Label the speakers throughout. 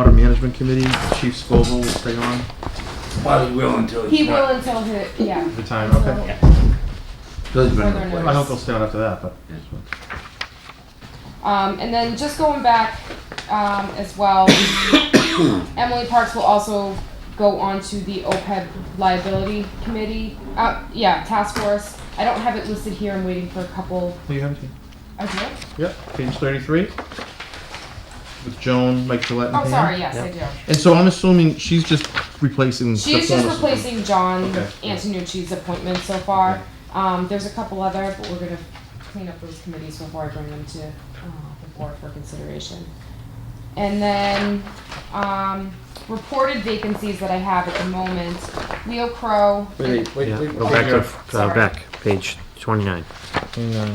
Speaker 1: Water Management Committee, Chief Scoville will stay on
Speaker 2: Well, he will until
Speaker 3: He
Speaker 2: he's
Speaker 3: will
Speaker 2: not.
Speaker 3: until he, yeah.
Speaker 1: for time,
Speaker 3: So-
Speaker 1: okay.
Speaker 2: Till he's been
Speaker 3: Further
Speaker 2: replaced.
Speaker 1: I hope he'll stay on after that, but.
Speaker 3: Um, and then just going back um, as well, Emily Parks will also go on to the OPEB liability committee. Uh, yeah, task force. I don't have it listed here. I'm waiting for a couple.
Speaker 1: Do you have anything?
Speaker 3: I do?
Speaker 1: Yep, page thirty-three. With Joan, Mike Gillette and
Speaker 3: Oh,
Speaker 1: Pam.
Speaker 3: sorry. Yes,
Speaker 1: Yep.
Speaker 3: I do.
Speaker 1: And so I'm assuming she's just replacing.
Speaker 3: She's
Speaker 1: the
Speaker 3: just
Speaker 1: former superintendent.
Speaker 3: replacing John
Speaker 1: Okay.
Speaker 3: Antonucci's appointment so far.
Speaker 1: Okay.
Speaker 3: Um, there's a couple other, but we're gonna clean up those committees before I bring them to, uh, the board for consideration. And then, um, reported vacancies that I have at the moment, Leo Crow.
Speaker 4: Wait, wait,
Speaker 5: Yeah,
Speaker 4: wait,
Speaker 5: go
Speaker 4: wait.
Speaker 5: back
Speaker 1: here.
Speaker 5: to, uh,
Speaker 3: Sorry.
Speaker 5: back, page twenty-nine.
Speaker 1: Hang on.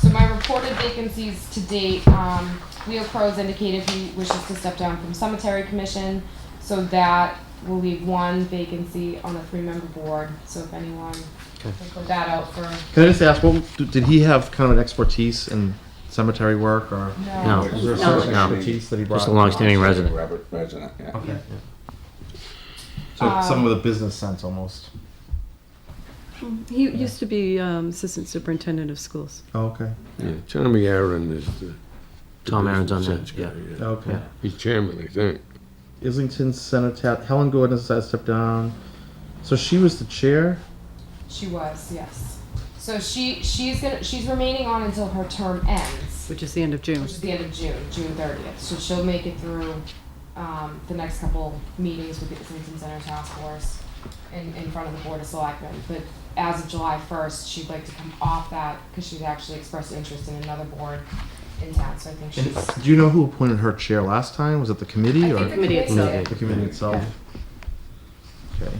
Speaker 3: So my reported vacancies to date, um, Leo Crow's indicated he wishes to step down from cemetery commission, so that will leave one vacancy on the three-member board, so if anyone
Speaker 5: Okay.
Speaker 3: can put that out for,
Speaker 1: Can I just ask, what, did he have kind of an expertise in cemetery work or?
Speaker 3: no.
Speaker 5: No,
Speaker 1: Was there a
Speaker 5: No.
Speaker 1: certain
Speaker 5: No.
Speaker 1: expertise that he brought?
Speaker 5: just a long-standing resident.
Speaker 4: Robert President, yeah.
Speaker 1: Okay. So
Speaker 3: Um,
Speaker 1: someone with a business sense almost.
Speaker 6: He used to be um, assistant superintendent of schools.
Speaker 1: Oh, okay.
Speaker 7: Yeah, Tommy Aaron is the. the
Speaker 5: Tom Aaron's on
Speaker 7: business
Speaker 5: that,
Speaker 7: sense guy,
Speaker 1: Okay.
Speaker 5: Yeah.
Speaker 7: He's chairman, I think.
Speaker 1: Islington Senator Helen Gordon has stepped down. So she was the chair.
Speaker 3: She was, yes. So she, she's gonna, she's remaining on until her term ends,
Speaker 6: Which is the end of June.
Speaker 3: which is the end of June, June thirtieth, so she'll make it through, um, the next couple meetings with the Islington Center Task Force in, in front of the Board of Selectmen, but as of July first, she'd like to come off that, cause she'd actually expressed interest in another board in town, so I think
Speaker 1: And
Speaker 3: she's.
Speaker 1: do you know who appointed her chair last time? Was it the committee
Speaker 3: I
Speaker 1: or
Speaker 3: think the committee
Speaker 6: Committee
Speaker 3: did.
Speaker 1: the committee itself? Okay.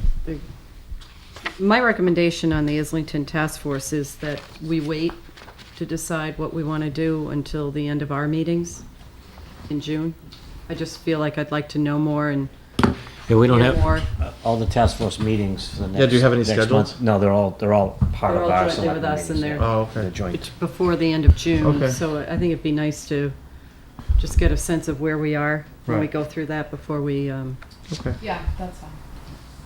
Speaker 6: My recommendation on the Islington Task Force is that we wait to decide what we want to do until the end of our meetings in June. I just feel like I'd like to know more and
Speaker 5: Yeah, we don't
Speaker 6: hear
Speaker 5: have,
Speaker 6: more.
Speaker 8: all the task force meetings for the next.
Speaker 1: Yeah, do you have any
Speaker 8: next
Speaker 1: scheduled?
Speaker 8: month. No, they're all, they're all part
Speaker 6: They're
Speaker 8: of
Speaker 6: all
Speaker 8: our
Speaker 6: jointly with
Speaker 8: selectmen
Speaker 6: us and
Speaker 8: meetings.
Speaker 6: they're-
Speaker 8: yeah.
Speaker 1: Oh,
Speaker 8: They're
Speaker 1: okay.
Speaker 8: joint.
Speaker 6: before the end of June.
Speaker 1: Okay.
Speaker 6: So I think it'd be nice to just get a sense of where we are when we
Speaker 1: Right.
Speaker 6: go through that before we, um,
Speaker 1: Okay.
Speaker 3: Yeah, that's fine.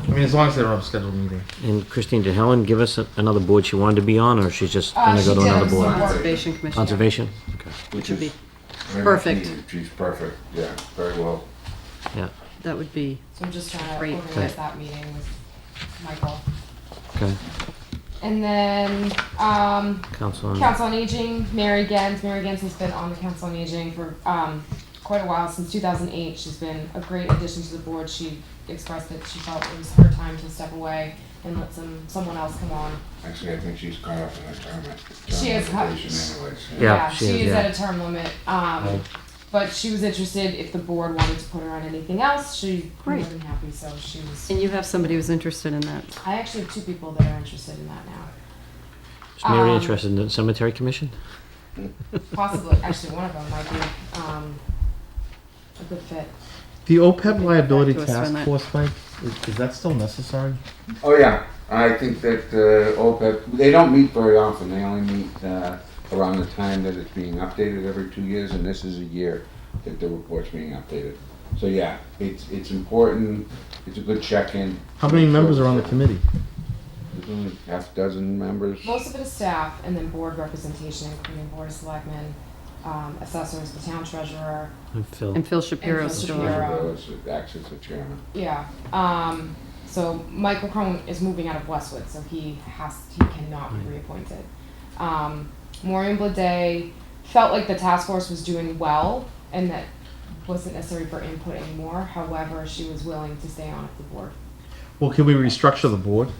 Speaker 1: I mean, as long as they don't have a scheduled meeting.
Speaker 5: and Christine, did Helen give us a- another board she wanted to be on, or she's just
Speaker 3: Uh,
Speaker 5: gonna go
Speaker 3: she
Speaker 5: to
Speaker 3: did.
Speaker 5: another board?
Speaker 6: Conservation Commission.
Speaker 5: Conservation? Okay,
Speaker 6: Which would be,
Speaker 4: Very much
Speaker 6: Perfect.
Speaker 4: needed. She's perfect, yeah, very well.
Speaker 5: yeah,
Speaker 6: that would be,
Speaker 3: So I'm just trying to
Speaker 6: Great.
Speaker 3: organize that meeting with Michael.
Speaker 5: okay.
Speaker 3: And then, um,
Speaker 5: Council on,
Speaker 3: Council on Aging, Mary Gens. Mary Gens has been on the Council on Aging for um, quite a while, since 2008. She's been a great addition to the board. She expressed that she felt it was her time to step away and let some someone else come on.
Speaker 4: Actually, I think she's caught up in the comment.
Speaker 3: She is caught-
Speaker 4: Anyways, yeah.
Speaker 5: Yeah, she
Speaker 3: she,
Speaker 5: is,
Speaker 3: is
Speaker 5: yeah.
Speaker 3: at a term limit. Um, but she was interested if the board wanted to put her on anything else. She'd be more
Speaker 6: Great.
Speaker 3: than happy, so she was.
Speaker 6: and you have somebody who's interested in that.
Speaker 3: I actually have two people that are interested in that now.
Speaker 5: is Mary
Speaker 3: um,
Speaker 5: interested in the cemetery commission?
Speaker 3: Possibly, actually, one of them might be um, a good fit.
Speaker 1: The OPEB liability
Speaker 6: Back to us for a
Speaker 1: task
Speaker 6: minute.
Speaker 1: force, Mike, is, is that still necessary?
Speaker 4: Oh, yeah, I think that, uh, OPEB, they don't meet very often, they only meet, uh, around the time that it's being updated every two years, and this is a year that the report's being updated. So, yeah, it's, it's important, it's a good check-in.
Speaker 1: How many members are on the committee?
Speaker 4: There's only half dozen members.
Speaker 3: Most of it is staff and then board representation, including board of selectmen, um, assessors, the town treasurer.
Speaker 5: And Phil,
Speaker 6: And Phil Shapiro's
Speaker 3: Phil
Speaker 6: still on.
Speaker 3: Shapiro.
Speaker 4: Those that Acts as the chairman.
Speaker 3: Yeah, um, so Michael Crone is moving out of Westwood, so he has, he cannot
Speaker 1: Hmm.
Speaker 3: be reappointed. Um, Maureen Blade felt like the task force was doing well and that wasn't necessary for input anymore. However, she was willing to stay on if the board
Speaker 1: Well, can we restructure the board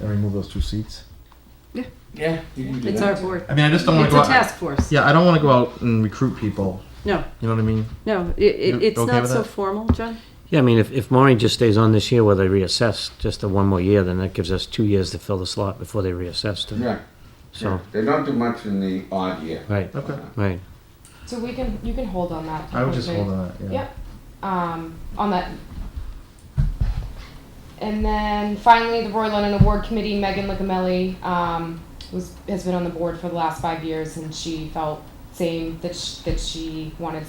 Speaker 1: and remove those two seats?
Speaker 4: Yeah, you can do
Speaker 6: It's
Speaker 4: that.
Speaker 6: our board.
Speaker 1: I mean, I just don't want
Speaker 6: It's
Speaker 1: to go
Speaker 6: a
Speaker 1: out.
Speaker 6: task force.
Speaker 1: Yeah, I don't want to go out and recruit people.
Speaker 6: No,
Speaker 1: You know what I mean?
Speaker 6: no, it, it,
Speaker 1: You
Speaker 6: it's
Speaker 1: okay
Speaker 6: not
Speaker 1: with
Speaker 6: so
Speaker 1: that?
Speaker 6: formal, John.
Speaker 5: yeah, I mean, if, if Maureen just stays on this year where they reassess, just the one more year, then that gives us two years to fill the slot before they reassess, to-
Speaker 4: Yeah,
Speaker 5: so,
Speaker 4: they don't do much in the odd year. Uh,
Speaker 5: right,
Speaker 1: Okay.
Speaker 5: right.
Speaker 3: So we can, you can hold on that.
Speaker 1: I would just hold
Speaker 3: appointment.
Speaker 1: on that, yeah.
Speaker 3: Yep, um, on that. And then finally, the Roy Lennon Award Committee, Megan Licamelli, um, was, has been on the board for the last five years and she felt saying that sh that she wanted